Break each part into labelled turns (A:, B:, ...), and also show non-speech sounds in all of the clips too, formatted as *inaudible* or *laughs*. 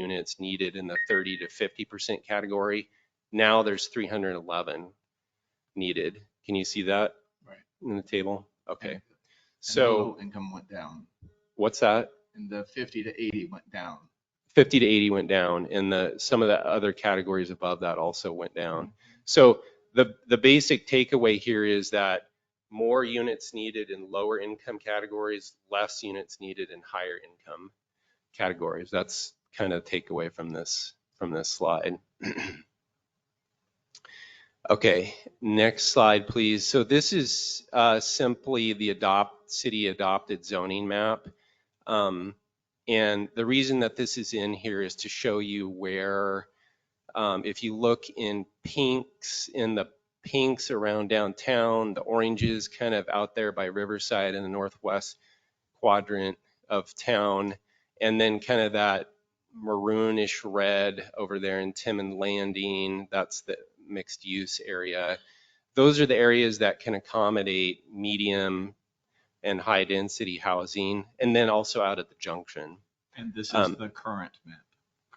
A: units needed in the 30 to 50% category. Now there's 311 needed. Can you see that?
B: Right.
A: In the table? Okay.
B: And the
A: So
B: low Income went down
A: what's that?
B: and the fifty to eighty went down.
A: 50 to 80 went down and the, some of the other categories above that also went down. So the, the basic takeaway here is that more units needed in lower income categories, less units needed in higher income categories. That's kind of takeaway from this, from this slide. *clears throat* Okay, next slide, please. So this is uh, simply the adopt, city adopted zoning map. Um, and the reason that this is in here is to show you where, um, if you look in pinks, in the pinks around downtown, the oranges kind of out there by Riverside in the northwest quadrant of town, and then kind of that maroonish red over there in Timmon Landing, that's the mixed use area. Those are the areas that can accommodate medium and high density housing, and then also out at the junction.
B: And this
A: Um,
B: the current map.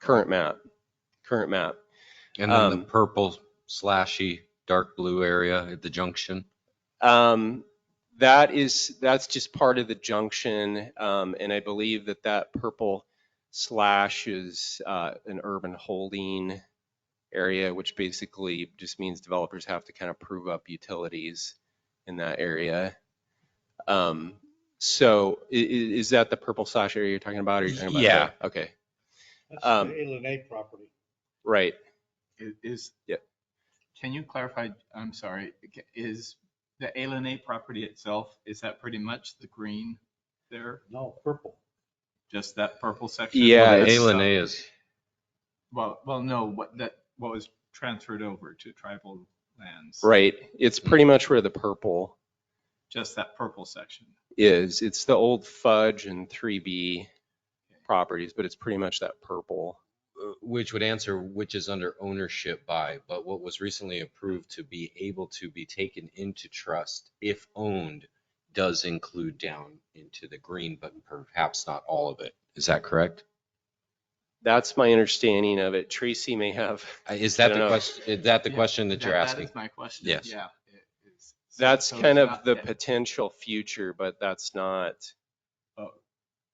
A: Current map, current map.
C: And then
A: Um,
C: the purple slashy dark blue area at the junction.
A: Um, that is, that's just part of the junction, um, and I believe that that purple slash is, uh, an urban holding area, which basically just means developers have to kind of prove up utilities in that area. Um, so i- i- is that the purple slash area you're talking about? or you're talking about-
C: Yeah.
A: Okay,
D: That's
A: Um,
D: the Alien A property.
A: right.
B: Is- Is.
A: Yeah.
B: Can you clarify, I'm sorry, is the Alien A property itself, is that pretty much the green there?
D: No, purple.
B: Just that purple section? uh,
A: Yeah,
C: Well, the
A: it's-
C: Alien A is,
B: Well, well, no, what that, what was transferred over to tribal lands?
A: Right. It's pretty much where the purple
B: Just that purple section.
A: is. It's the old fudge and 3B properties, but it's pretty much that purple.
C: uh, which would answer which is under ownership by, but what was recently approved to be able to be taken into trust if owned does include down into the green, but perhaps not all of it. Is that correct?
A: That's my understanding of it. Tracy may have,
C: Uh, Is
A: I
C: that
A: don't
C: the
A: know.
C: question, is that the
B: Yeah,
C: question that you're
B: That
C: asking?
B: is my question.
C: Yes.
B: Yeah. it is. *laughs* So-
A: that's
B: so it's
A: kind of
B: not
A: the
B: that-
A: potential future, but that's not,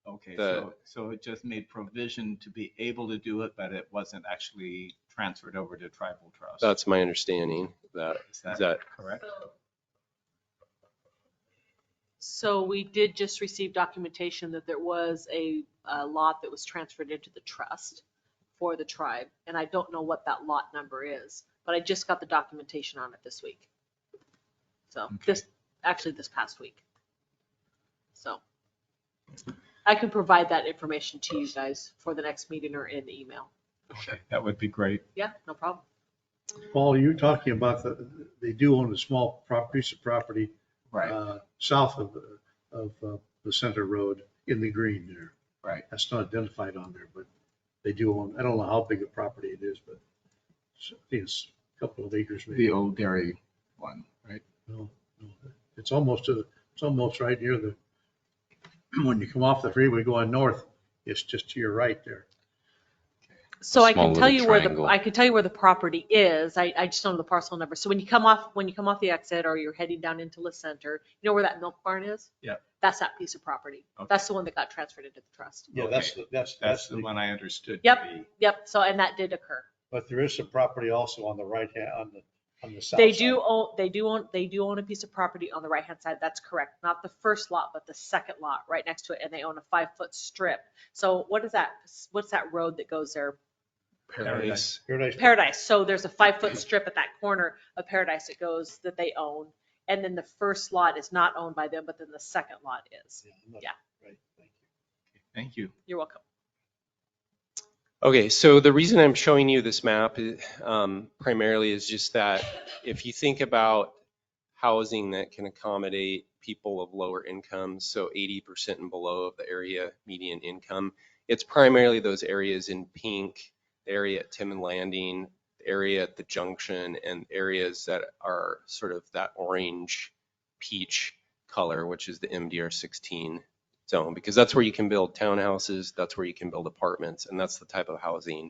B: Okay,
A: the-
B: so, so it just made provision to be able to do it, but it wasn't actually transferred over to tribal trust.
A: that's my understanding. of That,
B: Is
A: is
B: that
A: that,
B: correct?
E: So we did just receive documentation that there was a, a lot that was transferred into the trust for the tribe, and I don't know what that lot number is, but I just got the documentation on it this week. So this, actually this past week. So I can provide that information to you guys for the next meeting or in the email.
B: Okay, That would be great.
E: Yeah, no problem.
D: Paul, you're talking about the, they do own a small prop, piece of property, uh, south of, of uh, the center road in the green there.
B: Right.
D: That's not identified on there, but they do own, I don't know how big a property it is, but it's- I think it's a couple of acres
B: The
D: maybe.
B: old dairy one, right?
D: No, no. It's almost, to the- it's almost right near the, *clears throat* when you come off the freeway going north, it's just to your right there.
E: So I
C: Small
E: can
C: little
E: tell you where the,
C: triangle.
E: I can tell you where the property is. I, I just don't know the parcel number. So when you come off, when you come off the exit or you're heading down into La Center, you know where that milk barn is?
B: Yep.
E: That's that piece of property.
B: Okay.
E: That's the one that got transferred into the trust.
D: Yeah, that's, the- that's,
B: That's the one I understood. to
E: Yep.
B: be-
E: Yep, so, and that did occur.
D: But there is some property also on the right hand, on the, on the south.
E: They
D: side.
E: do own, they do own, they do own a piece of property on the right-hand side. That's correct. Not the first lot, but the second lot right next to it. And they own a five-foot strip. So what is that? What's that road that goes there?
A: Paradise.
D: Paradise.
E: Paradise. So there's a five foot strip at that corner of Paradise that goes, that they own. And then the first lot is not owned by them, but then the second lot is.
D: Yeah, I'm not-
E: Yeah.
D: right, thank you.
B: Thank you.
E: You're welcome.
A: Okay, so the reason I'm showing you this map um, primarily is just that if you think about housing that can accommodate people of lower incomes, so 80% and below of the area median income, it's primarily those areas in pink, the area at Tim and Landing, the area at the junction, and areas that are sort of that orange peach color, which is the MDR 16 zone because that's where you can build townhouses, that's where you can build apartments, and that's the type of housing